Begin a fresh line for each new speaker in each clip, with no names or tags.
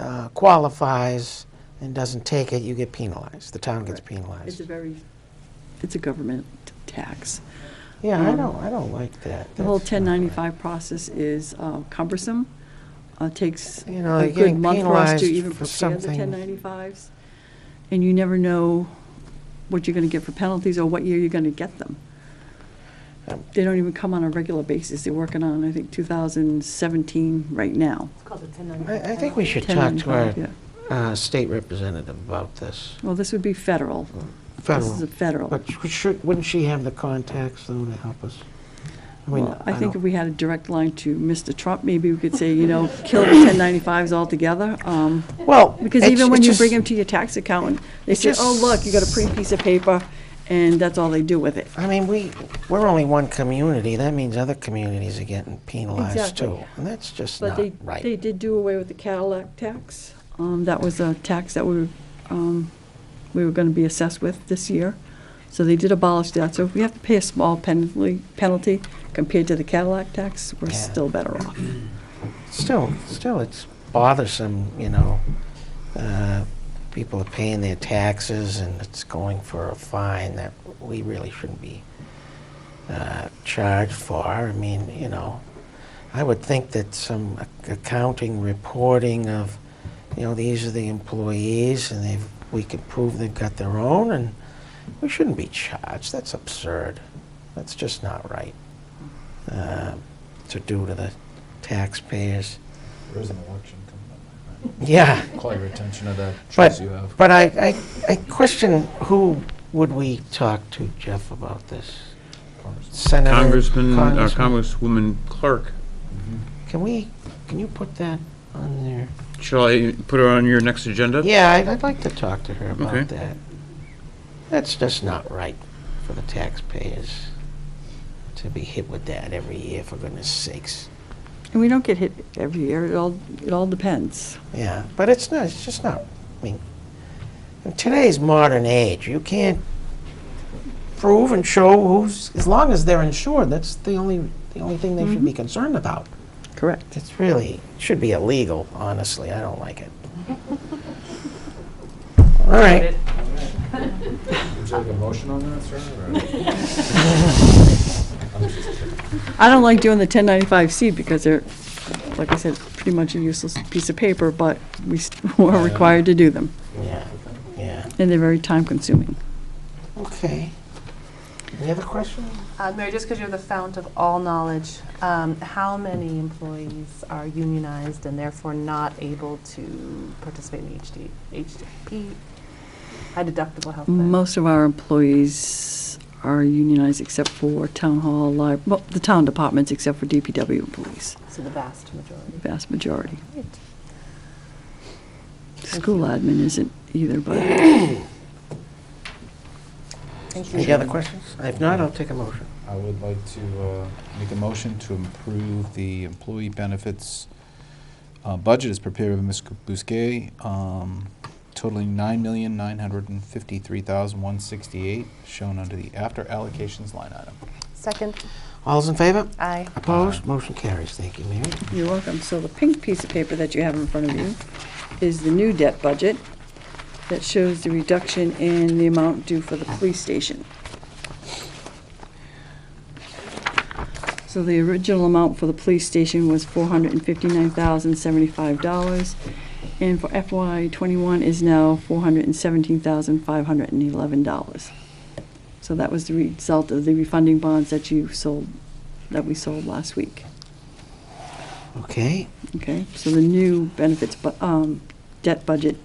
uh, qualifies and doesn't take it, you get penalized. The town gets
It's a
penalized.
very, it's a government tax.
Yeah, I
um,
don't, I don't like that.
The whole
That's not right.
1095 process is uh, cumbersome, uh, takes
You know,
a
you're
good
getting
month for us
penalized
to even
for
prepare the
something.
1095s, and you never know what you're going to get for penalties or what year you're going to get them.
Um,
They don't even come on a regular basis. They're working on, I think, 2017 right now.
I, I think we should talk to
1095,
our
yeah.
uh, state representative about this.
Well, this would be federal. This is a
Federal.
federal.
But sh- should, wouldn't she have the contacts though to help us? I mean,
Well, I think if
don't-
we had a direct line to Mr. Trump, maybe we could say, you know, kill the 1095s altogether. um,
Well.
Because
it's-
even when
it's
you
just-
bring them to your tax accountant, they
it
say, oh,
just-
look, you got a pretty piece of paper, and that's all they do with it.
I mean, we, we're only one community. That means other communities are getting penalized
Exactly.
too. And that's just
But
not
they, they
right.
did do away with the Cadillac tax. Um, That was a tax that we, um, we were going to be assessed with this year. So they did abolish that. So if we have to pay a small penalty, penalty compared to the Cadillac tax, we're
Yeah.
still better off.
Still, still, it's bothersome, you know. Uh, People are paying their taxes and it's going for a fine that we really shouldn't be uh, charged for. I mean, you know, I would think that some ac- accounting reporting of, you know, these are the employees and they've, we could prove they've got their own and we shouldn't be charged. That's absurd. That's just not right uh, to do to the taxpayers.
There is an election coming up.
Yeah.
Call your attention to that choice
But,
you have.
but I, I, I question who would we talk to, Jeff, about this? Senator?
Congressman, uh,
Congressman?
Congresswoman Clark.
Mm-hmm.
Can we, can you put that on there?
Shall I put her on your next agenda?
Yeah, I'd, I'd like to talk to her
Okay.
about that. That's just not right for the taxpayers to be hit with that every year, for goodness sakes.
And we don't get hit every year. It all, it all depends.
Yeah, but it's not, it's just not, I mean, in today's modern age, you can't prove and show who's, as long as they're insured, that's the only, the only thing they should be concerned about.
Correct.
It's really, should be illegal, honestly, I don't like it. All right,
Would you like a motion on that, sir? or-
I don't like doing the 1095C because they're, like I said, pretty much a useless piece of paper, but we s- are required to do them,
yeah, yeah,
and they're very time-consuming.
okay. Any other questions?
Uh, Mary, just because you're the fount of all knowledge, um, how many employees are unionized and therefore not able to participate in HD, HDP, high deductible health plan?
Most of our employees are unionized except for town hall, li, well, the town departments except for DPW employees,
So the vast majority.
the vast majority. School admin isn't either, but
Thank you.
Any other questions? If not, I'll take a motion.
I would like to uh, make a motion to improve the employee benefits uh, budget as prepared by Ms. Bousquet, um, totaling nine million, nine hundred and fifty-three thousand, one sixty-eight, shown under the after allocations line item.
Second,
All's in favor?
aye.
Opposed? Motion carries, thank you, Mary.
you're welcome. So the pink piece of paper that you have in front of you is the new debt budget that shows the reduction in the amount due for the police station. So the original amount for the police station was four hundred and fifty-nine thousand seventy-five dollars, and for FY twenty-one is now four hundred and seventeen thousand five hundred and eleven dollars. So that was the result of the refunding bonds that you sold, that we sold last week.
Okay,
Okay, so the new benefits, bu- um, debt budget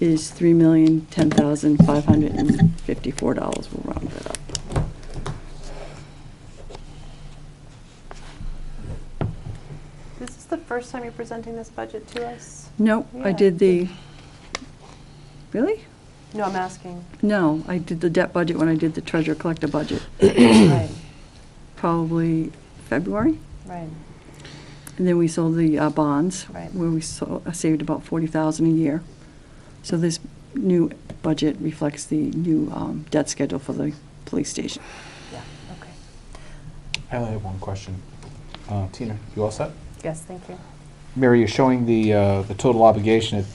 is three million, ten thousand, five hundred and fifty-four dollars, we'll round that up.
This is the first time you're presenting this budget to us?
No, I
Yeah.
did the, really?
No, I'm asking.
No, I did the debt budget when I did the treasurer collector budget,
Right,
probably February.
right.
And then we sold the uh, bonds,
Right.
where we so- uh, saved about forty thousand a year. So this new budget reflects the new um, debt schedule for the police station.
Yeah, okay.
I only have one question. Uh, Tina, you all set?
Yes, thank you.
Mary, you're showing the, uh, the total obligation at